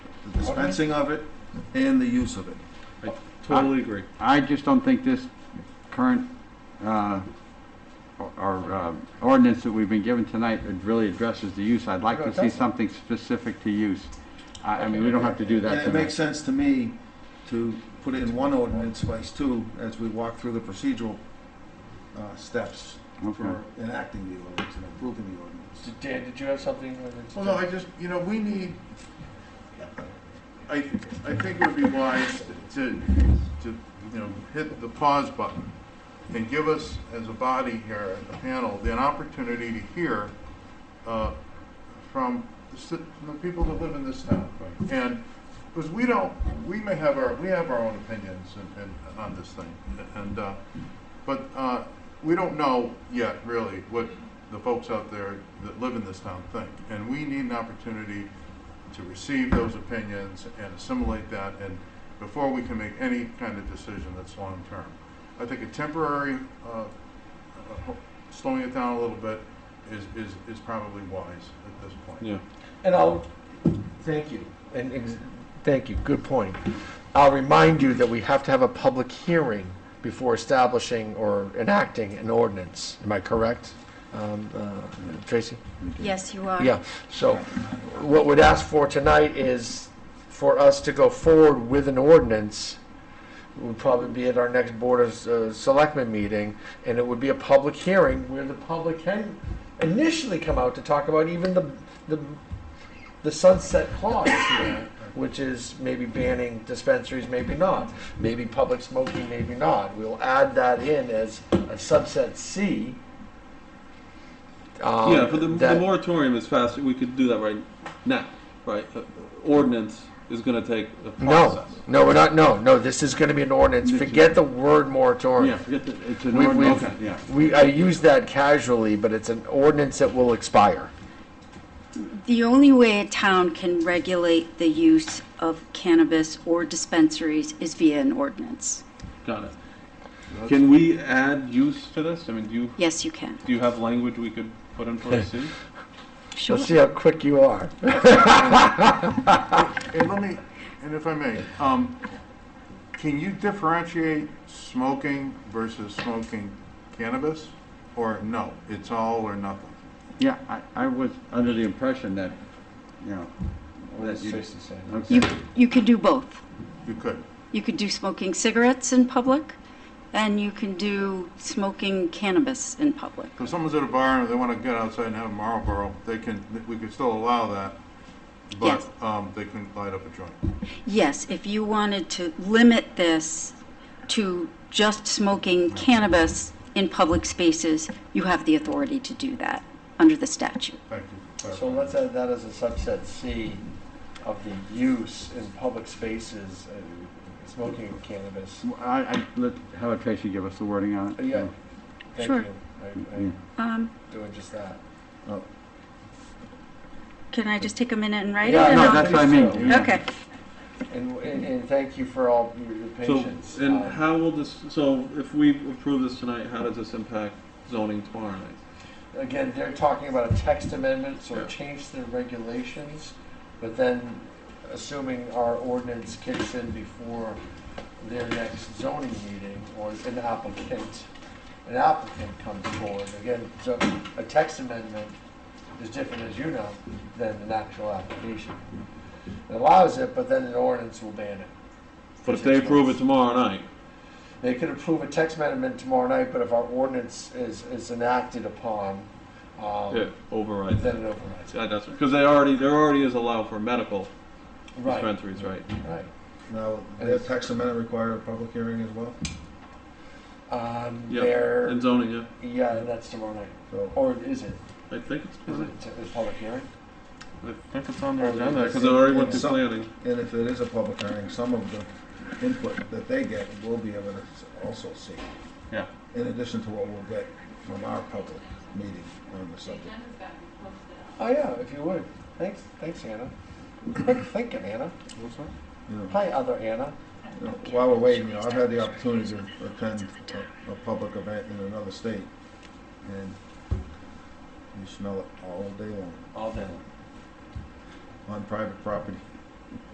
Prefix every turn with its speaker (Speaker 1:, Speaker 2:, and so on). Speaker 1: the dispensing of it and the use of it.
Speaker 2: I totally agree.
Speaker 3: I just don't think this current, uh, or- or, uh, ordinance that we've been given tonight really addresses the use. I'd like
Speaker 1: No,
Speaker 3: to
Speaker 1: it
Speaker 3: see
Speaker 1: doesn't.
Speaker 3: something specific to use. I, I mean, we don't have to do
Speaker 1: And
Speaker 3: that
Speaker 1: it makes
Speaker 3: tonight.
Speaker 1: sense to me to put it in one ordinance place too, as we walk through the procedural uh, steps
Speaker 3: Okay.
Speaker 1: for enacting the ordinance and approving the ordinance.
Speaker 4: Did- Dan, did you have something?
Speaker 5: Well, no, I just, you know, we need, I, I think it would be wise to, to, you know, hit the pause button and give us, as a body here at the panel, the opportunity to hear uh, from the ci- from the people that live in this town. And, because we don't, we may have our, we have our own opinions and, and on this thing. And, uh, but uh, we don't know yet, really, what the folks out there that live in this town think. And we need an opportunity to receive those opinions and assimilate that, and before we can make any kind of decision that's long-term. I think a temporary, uh, uh, ho- slowing it down a little bit is, is, is probably wise at this point.
Speaker 2: Yeah.
Speaker 4: And I'll, thank you, and, ex- thank you, good point. I'll remind you that we have to have a public hearing before establishing or enacting an ordinance. Am I correct, um, uh, Tracy?
Speaker 6: Yes, you are.
Speaker 4: Yeah, so what we'd ask for tonight is for us to go forward with an ordinance. It would probably be at our next Board of uh, Selectmen meeting, and it would be a public hearing where the public can initially come out to talk about even the, the, the sunset clause here, which is maybe banning dispensaries, maybe not, maybe public smoking, maybe not. We'll add that in as a subset C. um,
Speaker 2: Yeah, but the, the
Speaker 4: that-
Speaker 2: moratorium is fast, we could do that right now, right? Uh, Ordinance is gonna take a
Speaker 4: No,
Speaker 2: process.
Speaker 4: no, we're not, no, no, this is gonna be an ordinance, forget the word
Speaker 3: Yeah,
Speaker 4: moratorium.
Speaker 3: forget that, it's an
Speaker 4: We- we-
Speaker 3: ordinance, yeah.
Speaker 4: We, I use that casually, but it's an ordinance that will expire.
Speaker 6: The only way a town can regulate the use of cannabis or dispensaries is via an ordinance.
Speaker 2: Got it. Can we add use to this? I mean, do you,
Speaker 6: Yes, you can.
Speaker 2: do you have language we could put in for a C?
Speaker 6: Sure.
Speaker 4: Let's see how quick you are.
Speaker 5: And let me, and if I may, um, can you differentiate smoking versus smoking cannabis? Or no, it's all or nothing?
Speaker 3: Yeah, I, I was under the impression that, you know, that you. Okay.
Speaker 6: You, you could do both.
Speaker 5: You could.
Speaker 6: You could do smoking cigarettes in public, and you can do smoking cannabis in public.
Speaker 5: If someone's at a bar and they want to get outside and have a Marlboro, they can, we could still allow that, but
Speaker 6: Yes.
Speaker 5: um, they can light up a joint.
Speaker 6: Yes, if you wanted to limit this to just smoking cannabis in public spaces, you have the authority to do that under the statute.
Speaker 5: Thank you. for
Speaker 4: So
Speaker 5: clarifying.
Speaker 4: let's add that as a subset C of the use in public spaces, uh, smoking of cannabis.
Speaker 3: I, I, let, how about Tracy give us the wording on it?
Speaker 4: Yeah, thank
Speaker 6: Sure.
Speaker 4: you, I, I'm
Speaker 6: Um,
Speaker 4: doing just that.
Speaker 6: Can I just take a minute and write it?
Speaker 4: Yeah,
Speaker 6: and
Speaker 3: No,
Speaker 6: I'll-
Speaker 3: that's what I mean. yeah.
Speaker 6: Okay,
Speaker 4: And, and, and thank you for all your your
Speaker 2: So,
Speaker 4: patience.
Speaker 2: and
Speaker 4: Um,
Speaker 2: how will this, so if we approve this tonight, how does this impact zoning tomorrow night?
Speaker 4: Again, they're talking about a text amendment, so
Speaker 2: Yeah.
Speaker 4: change the regulations, but then assuming our ordinance kicks in before their next zoning meeting, or an applicant, an applicant comes forward, again, so a text amendment is different, as you know, than an actual application. It allows it, but then an ordinance will ban it.
Speaker 2: But if they approve it tomorrow night,
Speaker 4: They could approve a text amendment tomorrow night, but if our ordinance is, is enacted upon,
Speaker 2: it
Speaker 4: um,
Speaker 2: overrides
Speaker 4: then
Speaker 2: it.
Speaker 4: it overrides it.
Speaker 2: Yeah, that's, because they already, there already is allowed for medical
Speaker 4: Right,
Speaker 2: dispensaries, right?
Speaker 4: right.
Speaker 1: Now, their text amendment require a public hearing as well,
Speaker 4: Um,
Speaker 2: Yeah.
Speaker 4: there,
Speaker 2: And zoning, yeah,
Speaker 4: yeah, and that's tomorrow night,
Speaker 1: so.
Speaker 4: or is it?
Speaker 2: I think it's,
Speaker 4: Is it a public hearing?
Speaker 2: I think it's on
Speaker 4: their agenda.
Speaker 2: Because it already went
Speaker 1: It's
Speaker 2: through
Speaker 1: some-
Speaker 2: planning.
Speaker 1: And if it is a public hearing, some of the input that they get will be able to also see,
Speaker 2: Yeah.
Speaker 1: in addition to what we'll get from our public meeting on the subject.
Speaker 4: Oh, yeah, if you would. Thanks, thanks, Anna. Quick thinking, Anna.
Speaker 5: What's that?
Speaker 1: You know,
Speaker 4: Hi, other Anna.
Speaker 1: you know, While we're waiting, you know, I've had the opportunity to attend a, a public event in another state, and you smell it all day long
Speaker 4: All day long.
Speaker 1: on private property.